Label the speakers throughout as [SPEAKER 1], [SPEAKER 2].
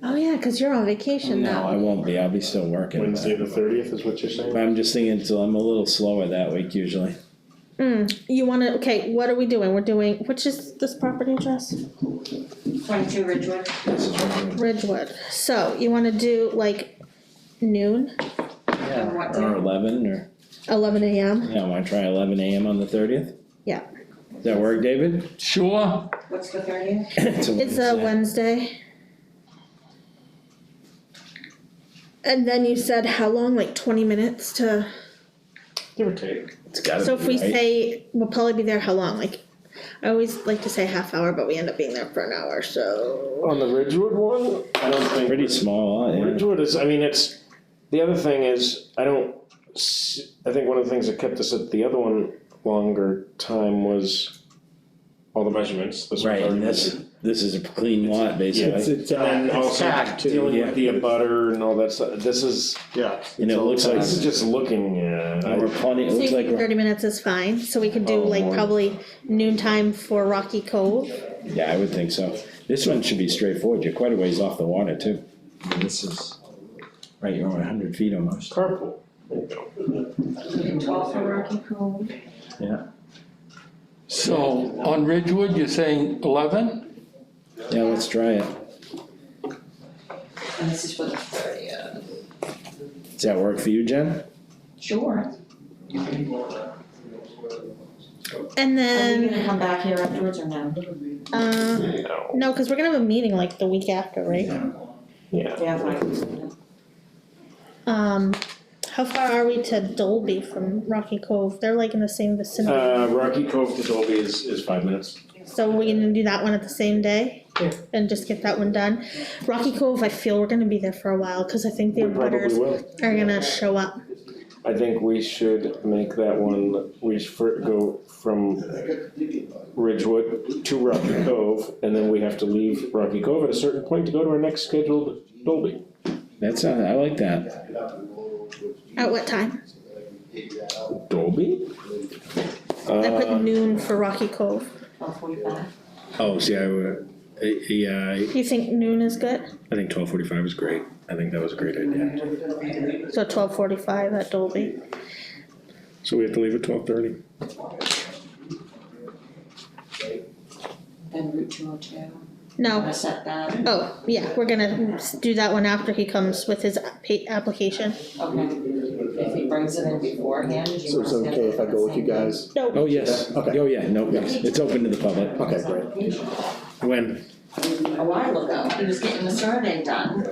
[SPEAKER 1] Oh, yeah, cause you're on vacation
[SPEAKER 2] No, I
[SPEAKER 1] now.
[SPEAKER 2] won't be, I'll be still working. but-
[SPEAKER 3] Wednesday the thirtieth is what you're saying?
[SPEAKER 2] But I'm just thinking, so I'm a little slower that week usually.
[SPEAKER 1] Mm, you wanna, okay, what are we doing? We're doing, which is this property address?
[SPEAKER 4] Twenty-two Ridgewood,
[SPEAKER 1] Ridgewood. So you wanna do like noon,
[SPEAKER 4] and what
[SPEAKER 2] Or
[SPEAKER 4] time?
[SPEAKER 2] eleven, or,
[SPEAKER 1] eleven AM?
[SPEAKER 2] yeah, wanna try eleven AM on the thirtieth?
[SPEAKER 1] Yeah.
[SPEAKER 2] Does that work, David? uh,
[SPEAKER 5] Sure,
[SPEAKER 4] what's the thirtieth?
[SPEAKER 1] It's uh, a Wednesday. And then you said how long? Like twenty minutes to,
[SPEAKER 3] Give or take.
[SPEAKER 2] It's gotta
[SPEAKER 1] so if
[SPEAKER 2] be,
[SPEAKER 1] we
[SPEAKER 2] right?
[SPEAKER 1] say, we'll probably be there how long? Like, I always like to say half hour, but we end up being there for an hour, so.
[SPEAKER 3] On the Ridgewood one, I don't think.
[SPEAKER 2] Pretty small, lot, yeah.
[SPEAKER 3] Ridgewood is, I mean, it's, the other thing is, I don't, s- I think one of the things that kept us at the other one longer time was all the measurements, this one's
[SPEAKER 2] Right,
[SPEAKER 3] already
[SPEAKER 2] and this,
[SPEAKER 3] measured.
[SPEAKER 2] this is a clean lot, basically,
[SPEAKER 6] it's,
[SPEAKER 3] And also dealing
[SPEAKER 2] yeah.
[SPEAKER 3] with the abutter and all that stuff, this is,
[SPEAKER 6] yeah.
[SPEAKER 2] and it looks like,
[SPEAKER 3] this is just looking, uh,
[SPEAKER 2] we're plenty, it
[SPEAKER 1] So
[SPEAKER 2] looks
[SPEAKER 1] you
[SPEAKER 2] like,
[SPEAKER 1] think
[SPEAKER 2] we're-
[SPEAKER 1] thirty minutes is fine, so we could do
[SPEAKER 3] Oh,
[SPEAKER 1] like
[SPEAKER 3] morning.
[SPEAKER 1] probably noontime for Rocky Cove.
[SPEAKER 2] yeah, I would think so. This one should be straightforward, you're quite a ways off the water too. I mean, This is, right, you're over a hundred feet almost.
[SPEAKER 3] carpool. There you go.
[SPEAKER 4] Twelve for Rocky Cove,
[SPEAKER 5] so on Ridgewood, you're saying eleven?
[SPEAKER 2] Yeah, let's try it,
[SPEAKER 4] and this is for the thirtieth.
[SPEAKER 2] does that work for you, Jen?
[SPEAKER 4] Sure,
[SPEAKER 1] And
[SPEAKER 4] are you
[SPEAKER 1] then,
[SPEAKER 4] gonna come back here afterwards or no?
[SPEAKER 3] Oh,
[SPEAKER 1] uh,
[SPEAKER 3] No.
[SPEAKER 1] no, cause we're gonna have a meeting like the week after, right?
[SPEAKER 3] Yeah.
[SPEAKER 4] Yeah, fine.
[SPEAKER 1] Um, how far are we to Dolby from Rocky Cove? They're like in the same vicinity,
[SPEAKER 3] Uh, Rocky Cove to Dolby is, is five minutes.
[SPEAKER 1] so we're gonna do that one at the same day?
[SPEAKER 3] Yeah.
[SPEAKER 1] And just get that one done. Rocky Cove, I feel we're gonna be there for a while, cause I think the
[SPEAKER 3] We probably
[SPEAKER 1] butters
[SPEAKER 3] will.
[SPEAKER 1] are gonna show up.
[SPEAKER 3] I think we should make that one, we should fir- go from Ridgewood to Rocky Cove, and then we have to leave Rocky Cove at a certain point to go to our next scheduled Dolby.
[SPEAKER 2] That's, uh, I like that.
[SPEAKER 1] At what time?
[SPEAKER 3] Dolby?
[SPEAKER 1] I put
[SPEAKER 3] Uh,
[SPEAKER 1] noon for Rocky Cove.
[SPEAKER 4] Twelve forty-five,
[SPEAKER 6] Oh, see, I, uh, I- yeah, I-
[SPEAKER 1] You think noon is good?
[SPEAKER 6] I think twelve forty-five is great, I think that was a great idea.
[SPEAKER 1] So twelve forty-five at Dolby.
[SPEAKER 6] So we have to leave at twelve thirty?
[SPEAKER 4] then Route two oh two, I'm
[SPEAKER 1] No,
[SPEAKER 4] gonna set that,
[SPEAKER 1] oh, yeah, we're gonna s- do that one after he comes with his pa- application.
[SPEAKER 4] okay. If he brings it in beforehand, do you
[SPEAKER 6] So
[SPEAKER 4] wanna
[SPEAKER 6] it's
[SPEAKER 4] schedule it
[SPEAKER 6] okay if I go with you guys?
[SPEAKER 1] No,
[SPEAKER 2] Oh, yes.
[SPEAKER 6] Okay.
[SPEAKER 2] Oh, yeah, no, yes. it's open to the public.
[SPEAKER 6] Okay, great. When?
[SPEAKER 4] A while ago, he was getting the survey done,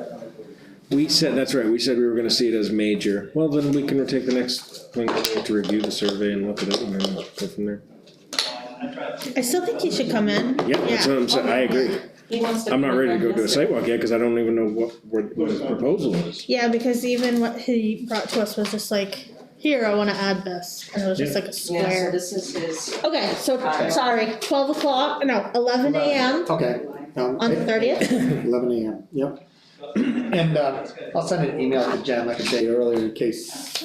[SPEAKER 6] We said, that's right, we said we were gonna see it as major, well, then we can take the next, thing to review the survey and look at it and then go from there.
[SPEAKER 1] I still think he should come in.
[SPEAKER 6] Yeah, that's what I'm saying, I agree,
[SPEAKER 4] he wants to.
[SPEAKER 6] I'm not ready to go do a
[SPEAKER 4] this-
[SPEAKER 6] sidewalk yet, cause I don't even know what, what what his proposal is.
[SPEAKER 1] Yeah, because even what he brought to us was just like, here, I wanna add this, and it was just like a
[SPEAKER 4] Yeah, so
[SPEAKER 1] square.
[SPEAKER 4] this is his.
[SPEAKER 1] Okay, so,
[SPEAKER 4] Okay.
[SPEAKER 1] sorry, twelve o'clock, no, eleven AM
[SPEAKER 7] Okay, um,
[SPEAKER 1] on the thirtieth,
[SPEAKER 7] eleven AM, yep. And, uh, I'll send an email to Jen like I said earlier in case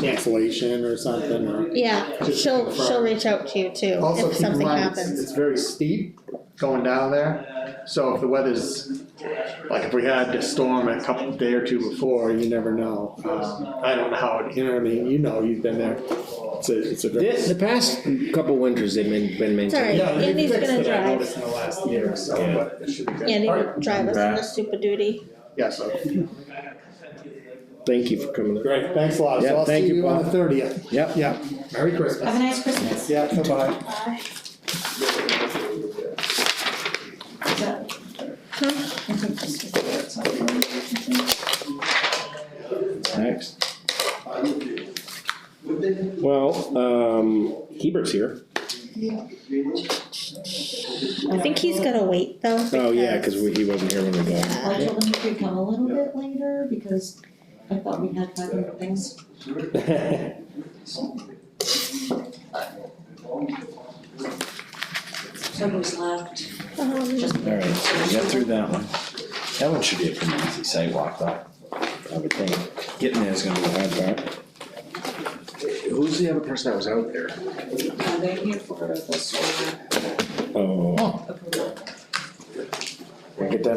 [SPEAKER 7] cancellation or something, or.
[SPEAKER 1] yeah, she'll, she'll reach out to you too,
[SPEAKER 7] Also,
[SPEAKER 1] if
[SPEAKER 7] keep in
[SPEAKER 1] something
[SPEAKER 7] mind, it's,
[SPEAKER 1] happens.
[SPEAKER 7] it's very steep going down there, so if the weather's, like if we had a storm a couple, day or two before, you never know. Um, I don't know how, it- you know what I mean, you know, you've been there, it's a, it's a. very-
[SPEAKER 6] The, the past couple winters, they've been, been maintained.
[SPEAKER 1] Sorry,
[SPEAKER 7] Yeah, they
[SPEAKER 1] Andy's
[SPEAKER 7] fixed
[SPEAKER 1] gonna
[SPEAKER 7] it, I
[SPEAKER 1] drive,
[SPEAKER 7] noticed in the last year or so, but it should be good.
[SPEAKER 1] Andy
[SPEAKER 7] All
[SPEAKER 1] will
[SPEAKER 7] right,
[SPEAKER 1] drive us on the super duty.
[SPEAKER 7] Yeah, so,
[SPEAKER 6] Thank you for coming.
[SPEAKER 7] great, thanks a lot,
[SPEAKER 2] Yeah,
[SPEAKER 7] so I'll
[SPEAKER 2] thank
[SPEAKER 7] see
[SPEAKER 2] you,
[SPEAKER 7] you on
[SPEAKER 2] Bob.
[SPEAKER 7] the thirtieth,
[SPEAKER 2] Yep,
[SPEAKER 7] yeah, Merry Christmas.
[SPEAKER 4] Have a nice Christmas.
[SPEAKER 7] Yeah, bye-bye.
[SPEAKER 4] Is that- I think this is the outside.
[SPEAKER 2] next.
[SPEAKER 3] Well, um, Hebert's here.
[SPEAKER 1] I think he's gonna wait though.
[SPEAKER 3] Oh, yeah, cause we, he wasn't here when we got.
[SPEAKER 1] Yeah.
[SPEAKER 4] I told him he could come a little bit later because I thought we had five other things. So he was left,
[SPEAKER 1] Um,
[SPEAKER 4] just.
[SPEAKER 2] All right, so we got through that one. That one should be a pretty easy sidewalk, though, I would think. Getting there is gonna be the hard part.
[SPEAKER 6] Who's the other person that was out there?
[SPEAKER 4] Uh, they're here for the solar
[SPEAKER 2] Oh,
[SPEAKER 4] approval.
[SPEAKER 3] Get that